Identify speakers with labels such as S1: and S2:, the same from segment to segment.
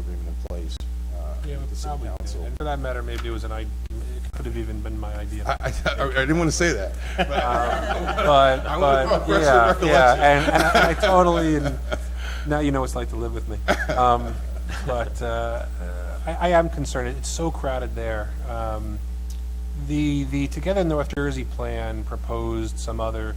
S1: uh, city council.
S2: And for that matter, maybe it was an, i- it could have even been my idea.
S1: I, I, I didn't want to say that.
S2: But,
S1: I wanna
S2: but,
S1: progress the
S2: yeah, yeah,
S1: recollection.
S2: and, and I I totally, and now you know what it's like to live with me. Um, But, uh, I, I am concerned, it's so crowded there. Um, The, the Together North Jersey plan proposed some other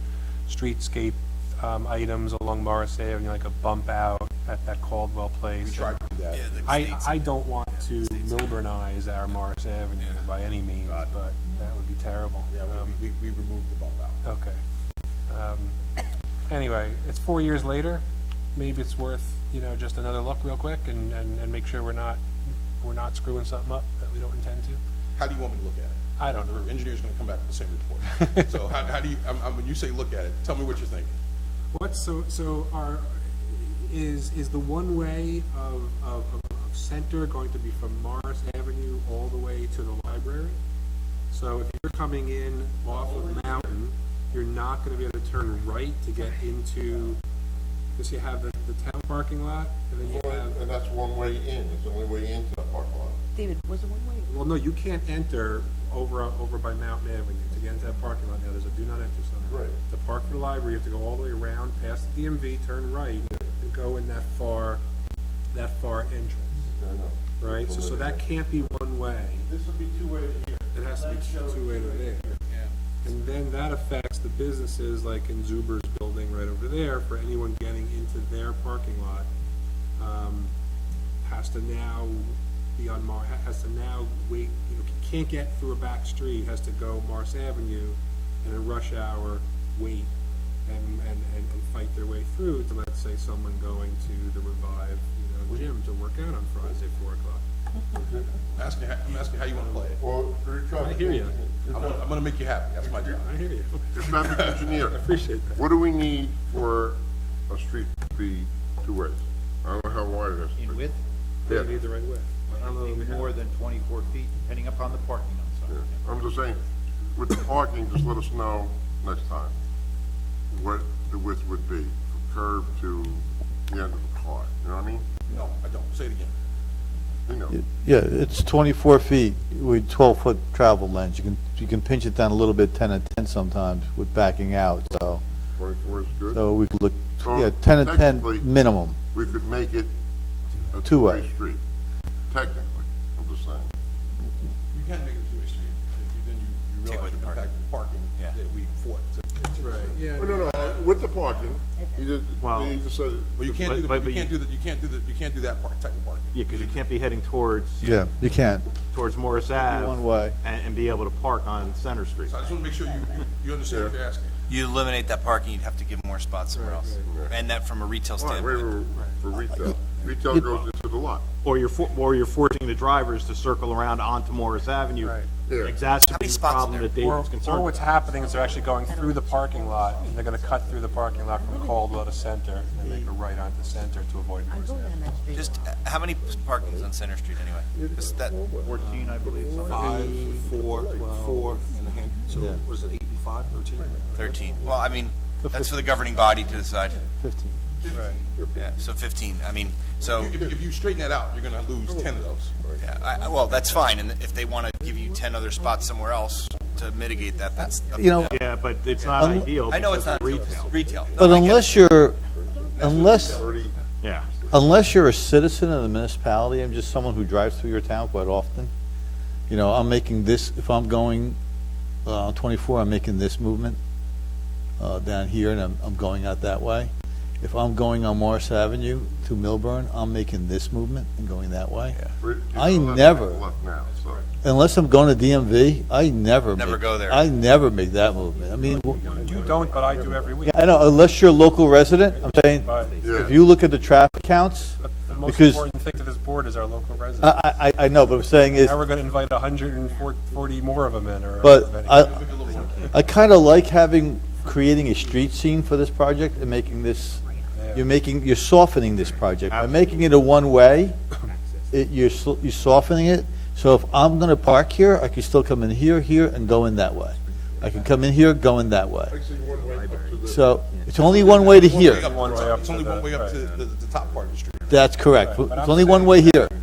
S2: streetscape, um, items along Morris Ave, you know, like a bump out at that Caldwell place.
S1: We tried to do that.
S2: I, I don't want to Milburnize our Morris Avenue by any means,
S1: God.
S2: but that would be terrible.
S1: Yeah,
S2: Um,
S1: we, we we removed the bump out.
S2: Okay. Um, Anyway, it's four years later, maybe it's worth, you know, just another look real quick and, and, and make sure we're not, we're not screwing something up that we don't intend to.
S1: How do you want me to look at it?
S2: I don't know.
S1: The engineer's going to come back with the same report. So how, how do you, I'm, I'm, when you say look at it, tell me what you're thinking.
S3: What's so, so are, is, is the one-way of, of, of of Center going to be from Morris Avenue all the way to the library? So if you're coming in off of Mountain, you're not gonna be able to turn right to get into, because you have the, the town parking lot, and then you have,
S4: And that's one way in, it's the only way into that parking lot.
S5: David, was it one way?
S3: well, no, you can't enter over, over by Mountain Avenue to get into that parking lot now, there's a do not enter sign.
S4: Right.
S3: To park for the library, you have to go all the way around, past the DMV, turn right, and go in that far, that far entrance,
S4: No, no.
S3: right? So, so that can't be one way,
S4: This would be two-way here.
S3: it has to be two-way to there. And then that affects the businesses like in Zuber's building right over there, for anyone getting into their parking lot, um, has to now be on Mar, ha- has to now wait, you know, can't get through a back street, has to go Mars Avenue and in rush hour, wait and, and, and and fight their way through to, let's say, someone going to the Revive, you know, gym to work out on Friday at four o'clock.
S1: I'm asking, how- I'm asking how you want to play it.
S4: Well, you're trying.
S3: I hear ya.
S1: I'm gonna, I'm gonna make you happy, that's my job.
S3: I hear you.
S4: Traffic engineer.
S3: I appreciate that.
S4: What do we need for a street to be two ways? I don't know how wide it is.
S6: in width,
S3: They
S4: Yeah.
S3: need the right way. I don't know that we
S6: anything
S3: have-
S6: more than twenty-four feet, depending upon the parking on
S4: Yeah.
S6: site.
S4: I'm just saying, with the parking, just let us know next time what the width would be from curb to the end of the car, you know what I mean?
S1: No, I don't, say it again.
S4: You know,
S7: Yeah, it's 24 feet with 12-foot travel length. You can, you can pinch it down a little bit, 10 and 10 sometimes with backing out, so,
S4: twenty-four is good.
S7: so we could look,
S4: So
S7: yeah, 10 and 10
S4: technically-
S7: minimum.
S4: We could make it a
S7: Two-way.
S4: two-way street, technically, I'm just saying.
S1: You can make it a two-way street, if you- then you, you realize the impact of parking that we fought. to-
S3: Right, yeah.
S4: Well, Oh, No, no, with the parking, he just, he just said,
S1: But you can't do, the-
S8: But- but
S1: you can't
S8: you-
S1: do that, you can't do that, you can't do that part, type of parking.
S8: Yeah, because you can't be heading towards,
S7: Yeah, you can't.
S8: towards Morris Ave.
S7: one way.
S8: And, and be able to park on Center Street.
S1: So I just want to make sure you, you- you understand what you're asking.
S9: You eliminate that parking, you'd have to give more spots somewhere else. And that from a retail
S4: all right, wait,
S9: standpoint.
S4: wait, wait, for retail, retail goes into the lot.
S8: Or you're, for- or you're forcing the drivers to circle around onto Morris Avenue.
S2: Right.
S4: Yeah.
S9: How many
S8: Exacerbating the
S9: spots are
S8: problem
S9: there?
S8: that
S2: Or,
S8: David's
S2: or
S8: concerned
S2: what's
S8: about.
S2: happening is they're actually going through the parking lot, and they're gonna cut through the parking lot from Caldwell to Center, and then make a right onto Center to avoid
S5: I'm
S2: Morris
S5: going
S2: Ave.
S5: on that street.
S9: Just uh, how many parkings on Center Street anyway? Is that,
S6: Fourteen, I believe, something.
S10: Five, four, four, and a hand, so was it eight and five, thirteen?
S9: 13? Well, I mean, that's for the governing body to decide.
S7: 15.
S9: Yeah, so 15, I mean, so,
S1: If, if you straighten that out, you're going to lose 10 of those.
S9: yeah, I, I- well, that's fine, and if they want to give you 10 other spots somewhere else to mitigate that, that's. up
S7: You know,
S9: to them.
S8: Yeah, but it's not
S7: Un-
S8: ideal.
S9: I know it's
S8: because
S9: not
S8: of
S9: retail.
S8: Retail.
S9: Retail.
S7: But unless you're, unless,
S8: Yeah.
S7: unless you're a citizen of the municipality, I'm just someone who drives through your town quite often, you know, I'm making this, if I'm going uh, 24, I'm making this movement uh, down here, and I'm, I'm going out that way. If I'm going on Morris Avenue to Milburn, I'm making this movement and going that way.
S4: We're- it's
S7: I
S4: a left-
S7: never-
S4: Left now, so.
S7: Unless I'm going to DMV, I never.
S9: Never
S7: make-
S9: go there.
S7: I never make that movement. I mean,
S2: You don't, but I do every week.
S7: I know, unless you're a local resident, I'm saying,
S2: But
S7: if you look at the traffic counts,
S2: the most
S7: Because-
S2: important thing to this board is our local residents.
S7: I, I, I know, but I'm saying is,
S2: Now we're going to invite 140 more of them in, or.
S7: But I, I kind of like having, creating a street scene for this project and making this, you're making, you're softening this project. By making it a one-way, it, you're, so- you're softening it. So if I'm gonna park here, I can still come in here, here, and go in that way. I can come in here, go in that way.
S4: Actually, one way up to the-
S7: So it's only one way to
S1: One way
S7: here.
S1: up-
S2: One way up
S1: It's
S2: to
S1: only
S2: the-
S1: one way up to
S2: right.
S1: the, the top part of the street.
S7: That's correct.
S2: But I'm
S7: It's only
S2: saying-
S7: one way here.